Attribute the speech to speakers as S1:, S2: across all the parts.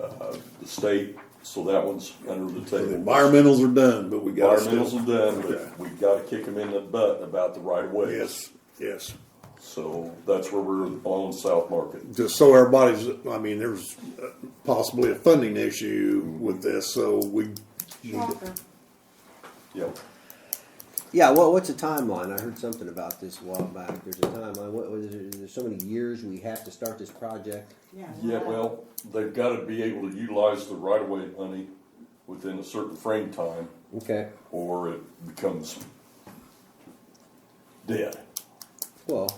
S1: the state, so that one's under the
S2: So the
S1: table.
S2: environmentals are done, but we got
S1: Environmentals
S2: still.
S1: are done,
S2: Okay.
S1: but we've gotta kick them in the butt about the right of way.
S2: Yes, yes.
S1: So that's where we're on South Market.
S2: Just so everybody's, I mean, there's uh, possibly a funding issue with this, so we.
S3: Walker.
S1: Yep.
S4: Yeah, well, what's a timeline? I heard something about this a while back. There's a timeline. What was it? There's so many years we have to start this project.
S3: Yeah.
S1: Yeah, well, they've gotta be able to utilize the right of way money within a certain frame time,
S4: Okay.
S1: or it becomes dead.
S4: Well,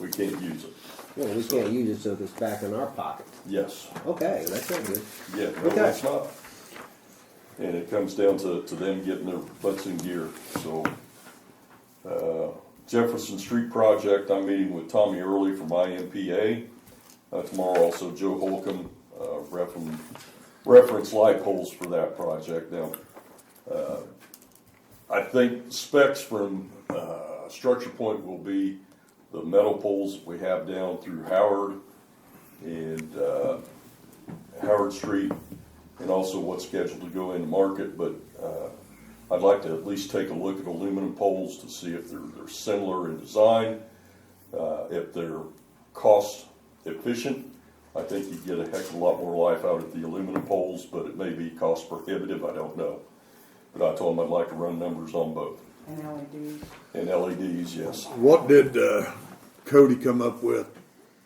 S1: We can't use it.
S4: well, we can't use it, so it's back in our pocket.
S1: Yes.
S4: Okay, that's not good.
S1: Yeah, no,
S4: Okay.
S1: it's not. And it comes down to, to them getting their butts in gear, so. uh, Jefferson Street Project, I'm meeting with Tommy Early from IMPA. Uh, tomorrow also Joe Holcomb, uh, reference, reference light poles for that project now. uh, I think specs from, uh, Structure Point will be the metal poles we have down through Howard and, uh, Howard Street, and also what's scheduled to go into market, but uh, I'd like to at least take a look at aluminum poles to see if they're, they're similar in design, uh, if they're cost efficient. I think you'd get a heck of a lot more life out of the aluminum poles, but it may be cost prohibitive, I don't know. But I told them I'd like to run numbers on both,
S3: And E LEDs.
S1: and LEDs, yes.
S2: What did uh, Cody come up with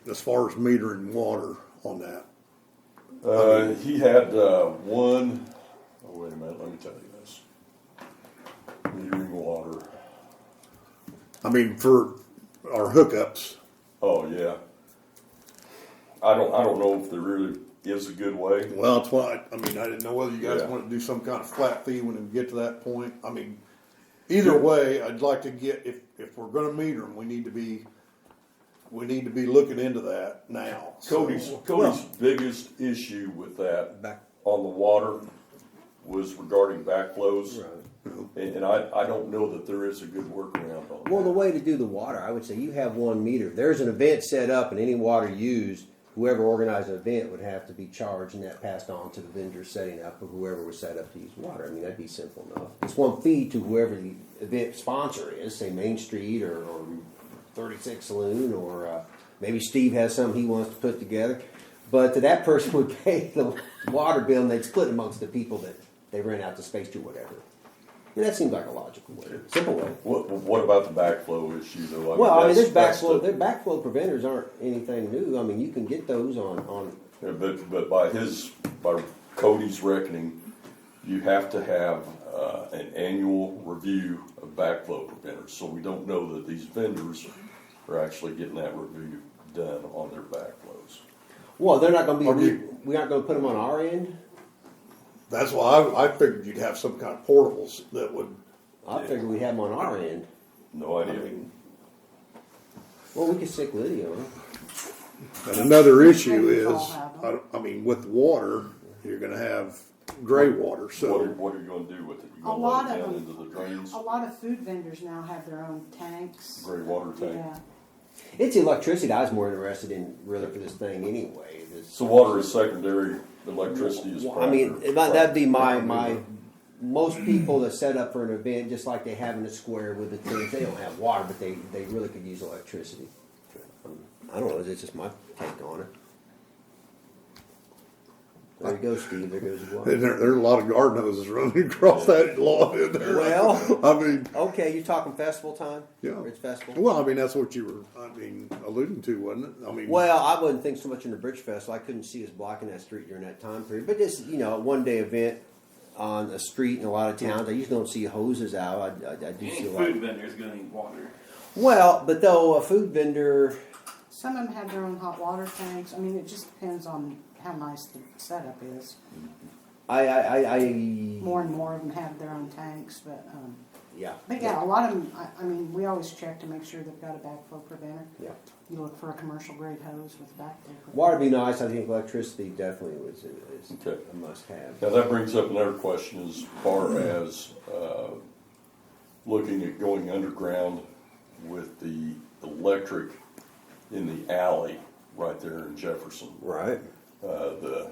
S2: as far as metering water on that?
S1: Uh, he had, uh, one, oh, wait a minute, let me tell you this. Metering water.
S2: I mean, for our hookups,
S1: Oh yeah. I don't. I don't know if there really is a good way.
S2: well, that's why, I mean, I didn't know whether you guys
S1: Yeah.
S2: wanted to do some kind of flat fee when we get to that point. I mean, either way, I'd like to get, if, if we're gonna meter them, we need to be, we need to be looking into that now. So-
S1: Cody's Cody's biggest issue with that
S4: Back.
S1: on the water was regarding backflows, and, and I, I don't know that there is a good workaround on
S4: Well, the
S1: that.
S4: way to do the water, I would say you have one meter. There's an event set up, and any water used, whoever organized the event would have to be charged, and that passed on to the vendor setting up or whoever was set up to use water. I mean, that'd be simple enough. It's one fee to whoever the event sponsor is, say Main Street or, or 36 Saloon, or uh, maybe Steve has something he wants to put together. But that person would pay the water bill, and they'd split amongst the people that they rent out the space to, whatever. And that seems like a logical way, simple way.
S1: What, what about the backflow issue though?
S4: Well, I mean, there's
S1: that's- that's
S4: backflow,
S1: the-
S4: their backflow preventers aren't anything new. I mean, you can get those on, on,
S1: Yeah, But, but by his, by Cody's reckoning, you have to have, uh, an annual review of backflow preventers, so we don't know that these vendors are actually getting that review done on their backflows.
S4: well, they're not gonna
S2: Are
S4: be,
S2: we-
S4: re- we aren't gonna put them on our end.
S2: That's why I, I figured you'd have some kind of portables that would,
S4: I figure we have them on our end.
S1: No
S2: I
S1: idea.
S2: mean,
S4: Well, we could stick Liddy on it.
S2: and another issue
S3: Maybe
S2: is,
S3: we'll have
S2: I, don't- I mean, with water, you're gonna have gray water,
S1: What are,
S2: so,
S1: what are you gonna do with it? You
S3: A
S1: gonna
S3: lot
S1: let it
S3: of
S1: down
S3: them,
S1: into the drains,
S3: a lot of food vendors now have their own tanks.
S1: gray water tank?
S3: Yeah,
S4: It's electricity I was more interested in really for this thing anyway. This-
S1: So water is secondary, electricity is
S4: Well, I mean,
S1: primary.
S4: it might- that'd be my, my, most people that set up for an event, just like they have in the square with the teams, they don't have water, but they, they really could use electricity. Um, I don't know, it's just my take on it. There you go, Steve, there goes your
S2: and
S4: water.
S2: there, there are a lot of garden hoses running across that lawn in there.
S4: Well-
S2: I mean,
S4: Okay, you're talking festival time?
S2: yeah.
S4: Ridge Festival?
S2: Well, I mean, that's what you were, I mean, alluding to, wasn't it? I mean.
S4: Well, I wouldn't think so much in the Bridge Festival, I couldn't see us blocking that street during that time period, but this, you know, a one-day event on a street in a lot of towns, I usually don't see hoses out, I, I I do
S5: Any
S4: see a lot.
S5: food vendor's gonna need water.
S4: Well, but though a food vendor,
S3: some of them have their own hot water tanks. I mean, it just depends on how nice the setup is.
S4: I, I, I, I
S1: Mm-hmm.
S3: More and more of them have their own tanks, but, um,
S4: yeah,
S3: but yeah, a lot of them, I, I mean, we always check to make sure they've got a backflow preventer.
S4: yeah.
S3: You look for a commercial grade hose with a backflow. preventer.
S4: Water would be nice. I think electricity definitely was is
S1: Okay.
S4: a must have.
S1: Now, that brings up another question as far as, uh, looking at going underground with the electric in the alley right there in Jefferson.
S4: Right.
S1: Uh, the